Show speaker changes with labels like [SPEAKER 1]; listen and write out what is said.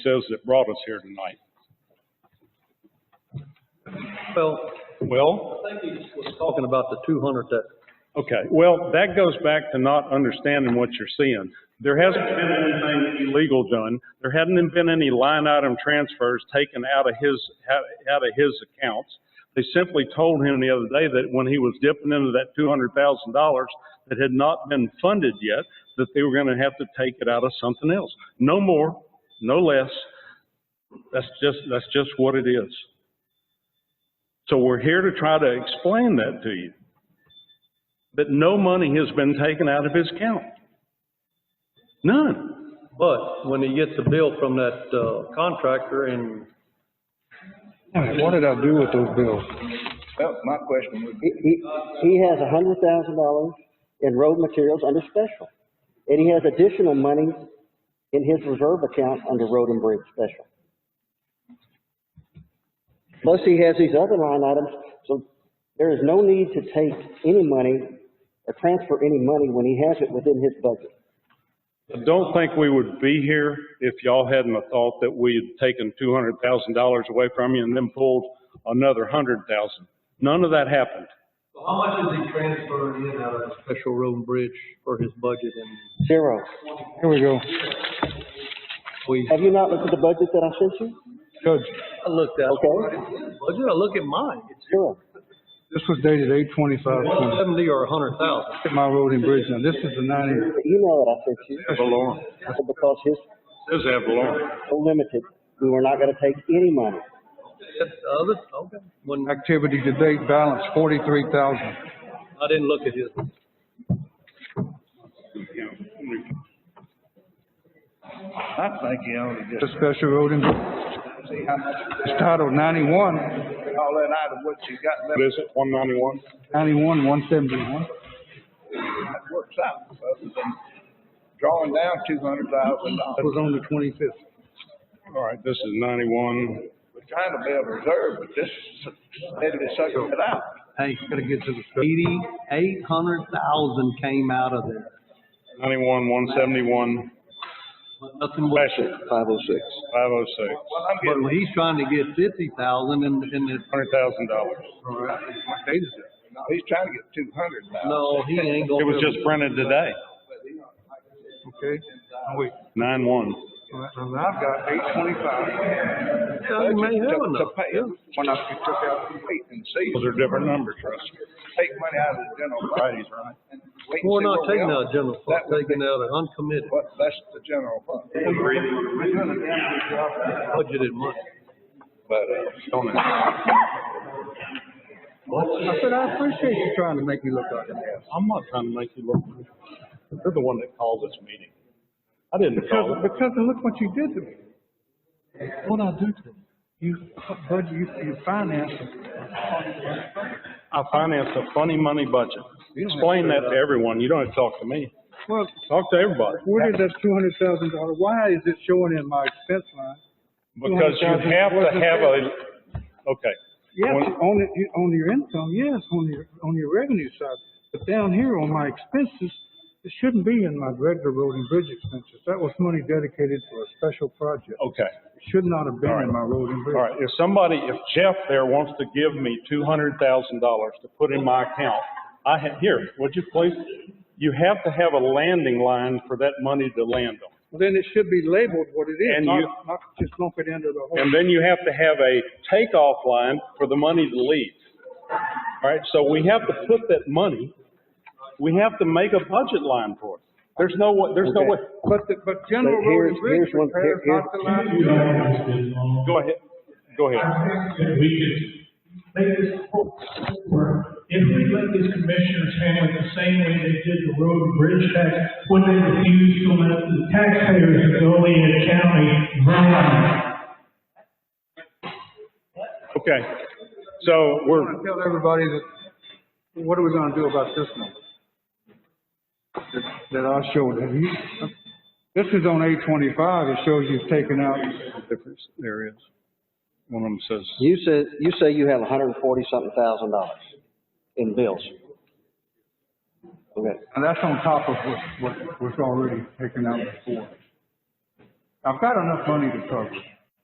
[SPEAKER 1] says that brought us here tonight.
[SPEAKER 2] Well,
[SPEAKER 1] Well,
[SPEAKER 2] I think he was talking about the two hundred that,
[SPEAKER 1] okay, well, that goes back to not understanding what you're seeing. There hasn't been anything illegal done. There hadn't been any line item transfers taken out of his, out of his accounts. They simply told him the other day that when he was dipping into that two hundred thousand dollars that had not been funded yet, that they were gonna have to take it out of something else. No more, no less. That's just, that's just what it is. So we're here to try to explain that to you. That no money has been taken out of his account. None.
[SPEAKER 2] but when he gets a bill from that, uh, contractor and
[SPEAKER 3] All right, What did I do with those bills?
[SPEAKER 4] Well, my question would be,
[SPEAKER 5] He, he, he has a hundred thousand dollars in road materials under special. And he has additional money in his reserve account under road and bridge special. Plus he has these other line items, so there is no need to take any money or transfer any money when he has it within his budget.
[SPEAKER 1] I don't think we would be here if y'all hadn't have thought that we had taken two hundred thousand dollars away from you and then pulled another hundred thousand. None of that happened.
[SPEAKER 2] How much is he transferring in out of the special road and bridge for his budget and
[SPEAKER 5] Zero.
[SPEAKER 3] Here we go.
[SPEAKER 2] we,
[SPEAKER 5] Have you not looked at the budget that I sent you?
[SPEAKER 3] Judge,
[SPEAKER 2] I looked at.
[SPEAKER 5] Okay.
[SPEAKER 2] Budget, I look at mine, it's
[SPEAKER 5] Zero.
[SPEAKER 3] this was dated eight twenty-five
[SPEAKER 2] one
[SPEAKER 3] twenty.
[SPEAKER 2] seventy or a hundred thousand.
[SPEAKER 3] At my road and bridge now. This is the ninety,
[SPEAKER 5] The email that I sent you,
[SPEAKER 1] Valorem.
[SPEAKER 5] because his
[SPEAKER 1] Says Avalon.
[SPEAKER 5] so limited, we were not gonna take any money.
[SPEAKER 2] That's the other, okay, when,
[SPEAKER 3] activity to date balance forty-three thousand.
[SPEAKER 2] I didn't look at his,
[SPEAKER 4] I think you ought to
[SPEAKER 3] The
[SPEAKER 4] just
[SPEAKER 3] special road and,
[SPEAKER 4] see how much,
[SPEAKER 3] it's titled ninety-one,
[SPEAKER 4] all that out of what you got
[SPEAKER 1] What
[SPEAKER 4] left,
[SPEAKER 1] is it, one ninety-one?
[SPEAKER 3] ninety-one, one seventy-one.
[SPEAKER 4] that works out, other than drawing down two hundred thousand
[SPEAKER 3] That
[SPEAKER 4] dollars.
[SPEAKER 3] was on the twenty-fifth.
[SPEAKER 1] All right, this is ninety-one.
[SPEAKER 4] We're trying to build a reserve, but this is steadily sucking it out.
[SPEAKER 2] hey, gotta get to the. Eighty-eight hundred thousand came out of there,
[SPEAKER 1] Ninety-one, one seventy-one,
[SPEAKER 2] but nothing was.
[SPEAKER 1] special,
[SPEAKER 4] Five oh six.
[SPEAKER 1] five oh six,
[SPEAKER 4] Well, I'm
[SPEAKER 2] But
[SPEAKER 4] getting,
[SPEAKER 2] he's trying to get fifty thousand and, and it's
[SPEAKER 1] hundred thousand dollars.
[SPEAKER 4] no, he's trying to get two hundred thousand.
[SPEAKER 2] No, he ain't gonna.
[SPEAKER 1] It was just printed today,
[SPEAKER 3] Okay, Oh, wait,
[SPEAKER 1] nine-one.
[SPEAKER 3] All right, now I've got eight twenty-five.
[SPEAKER 2] Yeah, he may have
[SPEAKER 4] To
[SPEAKER 2] enough.
[SPEAKER 4] pay it, when I took out the wait and see,
[SPEAKER 1] Those are different numbers, Russ.
[SPEAKER 4] take money out of the general fund. right? Wait and
[SPEAKER 2] We're
[SPEAKER 4] see
[SPEAKER 2] not
[SPEAKER 4] where we
[SPEAKER 2] taking
[SPEAKER 4] are.
[SPEAKER 2] out general fund,
[SPEAKER 4] That would
[SPEAKER 2] taking out an uncommitted
[SPEAKER 4] What, that's the general fund.
[SPEAKER 2] budgeted money.
[SPEAKER 4] But, uh,
[SPEAKER 3] I said, I appreciate you trying to make me look like an ass.
[SPEAKER 1] I'm not trying to make you look, you're the one that called this meeting. I didn't
[SPEAKER 3] Because,
[SPEAKER 1] call it.
[SPEAKER 3] because of look what you did to me. What I do to you? You, bud, you, you financed it.
[SPEAKER 1] I financed a funny money budget. Explain that to everyone, you don't have to talk to me,
[SPEAKER 3] Well,
[SPEAKER 1] talk to everybody.
[SPEAKER 3] where did that two hundred thousand dollar, why is it showing in my expense line?
[SPEAKER 1] Because you have to have a, okay,
[SPEAKER 3] Yes,
[SPEAKER 1] Well-
[SPEAKER 3] on, it- on your income, yes, on your, on your revenue side, but down here on my expenses, it shouldn't be in my regular road and bridge expenses. That was money dedicated to a special project.
[SPEAKER 1] okay.
[SPEAKER 3] It should not have been in my road and bridge.
[SPEAKER 1] All right, if somebody, if Jeff there wants to give me two hundred thousand dollars to put in my account, I have, here, would you please? You have to have a landing line for that money to land on.
[SPEAKER 3] Well, Then it should be labeled what it is,
[SPEAKER 1] And
[SPEAKER 3] not,
[SPEAKER 1] you-
[SPEAKER 3] not just lump it into the whole.
[SPEAKER 1] And then you have to have a takeoff line for the money to leave. All right, so we have to put that money, we have to make a budget line for it. There's no way, there's no
[SPEAKER 5] Okay.
[SPEAKER 1] way,
[SPEAKER 3] But, the- but general
[SPEAKER 5] But
[SPEAKER 3] road and
[SPEAKER 5] here's-
[SPEAKER 3] bridge
[SPEAKER 5] here's one-
[SPEAKER 3] repairs,
[SPEAKER 5] here-
[SPEAKER 3] not the line.
[SPEAKER 1] go ahead, go ahead.
[SPEAKER 6] I think that we could make this whole system work. If we let these commissioners handle it the same way they did the road and bridge tax, when they refused to let the taxpayers of Goliad County run on it.
[SPEAKER 1] Okay, so we're,
[SPEAKER 3] I wanna tell everybody that, what are we gonna do about this one? That- That I showed, have you, this is on eight twenty-five, it shows you've taken out,
[SPEAKER 1] difference, there is. One of them says.
[SPEAKER 5] You said, you say you have hundred and forty something thousand dollars in bills. Okay,
[SPEAKER 3] and that's on top of what, what was already taken out before. I've got enough money to cover. it.